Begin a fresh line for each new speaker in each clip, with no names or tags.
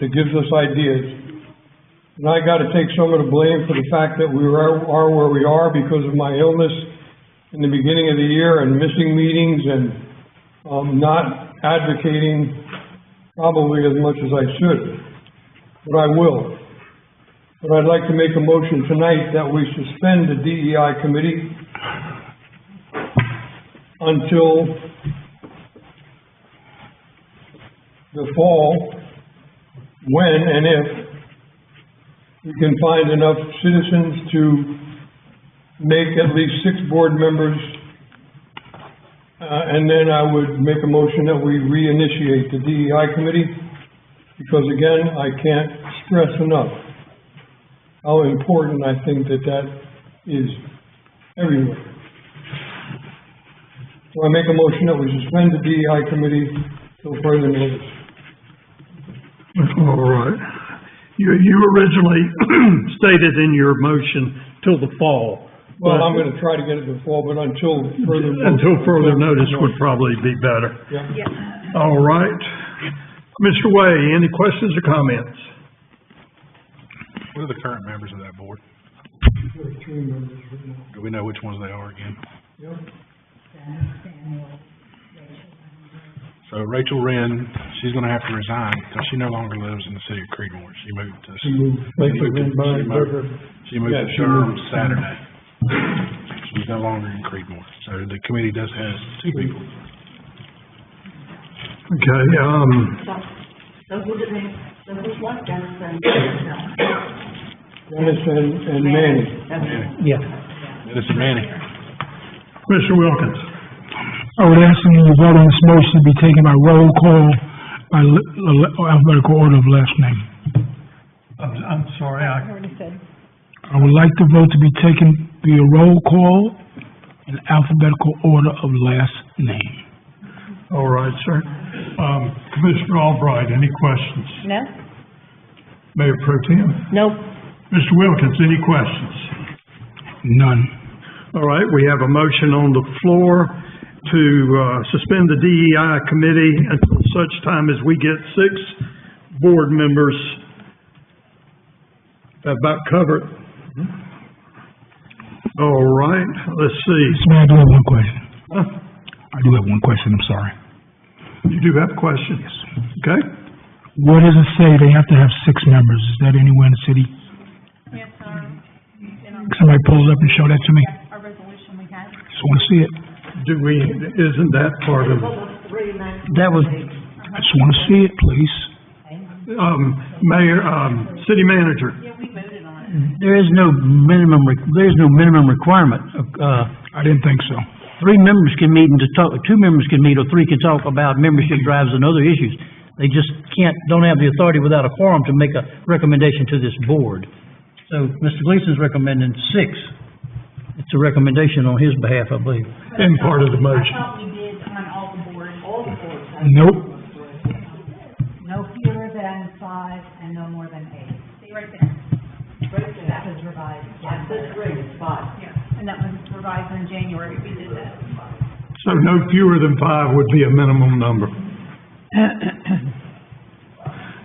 that gives us ideas. And I gotta take some of the blame for the fact that we are, are where we are because of my illness in the beginning of the year and missing meetings and, um, not advocating probably as much as I should, but I will. But I'd like to make a motion tonight that we suspend the DEI committee until the fall, when and if we can find enough citizens to make at least six board members. Uh, and then I would make a motion that we reinitiate the DEI committee, because again, I can't stress enough how important I think that that is everywhere. So I make a motion that we suspend the DEI committee till further notice.
All right. You, you originally stated in your motion till the fall.
Well, I'm
but
gonna try to get it before, but until further. notice-
Until further notice would probably be better.
Yeah.
All right. Mr. Way, any questions or comments?
What are the current members of that board?
There are three members right now.
Do we know which ones they are again?
Yeah.
So Rachel Wren, she's gonna have to resign because she no longer lives in the city of Creedmoor. She moved to,
She moved, like,
She moved to-
by,
she moved- she moved
Yeah,
to
she
Durham
moved.
Saturday. She's no longer in Creedmoor. So the committee does have two people.
Okay, um,
So, so who did they, so who's left, Dennison?
Dennis and, and Manny.
Yeah.
This is Manny.
Mr. Wilkins?
I would ask them vote on this motion to be taken by roll call, by le- le- alphabetical order of last name.
I'm, I'm sorry, I.
I would like the vote to be taken via roll call in alphabetical order of last name.
All right, sir. Um, Commissioner Albright, any questions?
No?
Mayor Pro Tem?
Nope.
Mr. Wilkins, any questions?
None.
All right, we have a motion on the floor to uh, suspend the DEI committee until such time as we get six board members. That About covered. All right, let's see.
Mayor, I do have one question.
Huh?
I do have one question, I'm sorry.
You do have questions? Okay,
What does it say they have to have six members? Is that anywhere in the city?
Yes, our, in our,
Somebody pull it up and show that to me.
our resolution we had.
Just want to see it.
do we, isn't that part of,
That was. I just want to see it, please.
um, Mayor, um, City Manager?
Yeah, we voted on it.
There is no minimum, re- there is no minimum requirement. Uh,
I didn't think so.
three members can meet and to talk, two members can meet, or three can talk about membership drives and other issues. They just can't, don't have the authority without a quorum to make a recommendation to this board. So Mr. Gleason's recommending six. It's a recommendation on his behalf, I believe.
And part of the motion.
I thought we did on all the boards.
Nope.
No fewer than five and no more than eight.
See right there.
That was revised. That's five.
Yeah. And that was revised in January. We did that.
So no fewer than five would be a minimum number.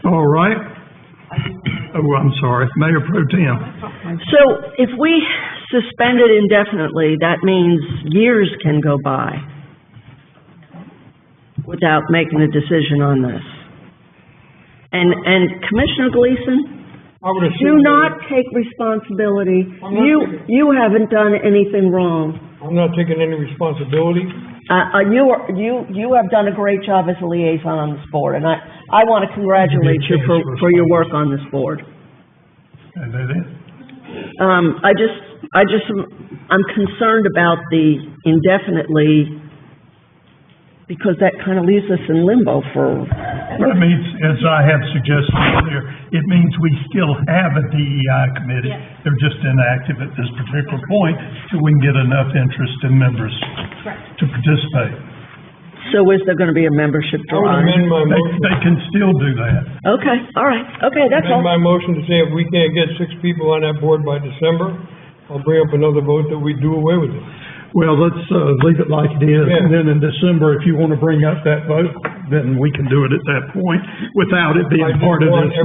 All right. Oh, I'm sorry, Mayor Pro Tem.
So if we suspend it indefinitely, that means years can go by without making a decision on this. And, and Commissioner Gleason,
I would
do
assume,
not take responsibility.
I'm not
You,
taking-
you haven't done anything wrong.
I'm not taking any responsibility.
Uh, uh, you are, you, you have done a great job as a liaison on this board, and I, I want to congratulate you for, for your work on this board.
And that is-
Um, I just, I just, am- I'm concerned about the indefinitely, because that kind of leaves us in limbo for,
That means, as I have suggested earlier, it means we still have a DEI committee. They're just inactive at this particular point till we can get enough interest in members to participate.
so is there gonna be a membership
I would
drive?
amend my
They,
motion,
they can still do that.
Okay, all right, okay, that's
amend
all.
my motion to say if we can't get six people on that board by December, I'll bring up another vote that we do away with it.
Well, let's, uh, leave it like it is, and
Yeah.
then in December, if you want to bring up that vote, then we can do it at that point, without it
I
being
just
part of
want
this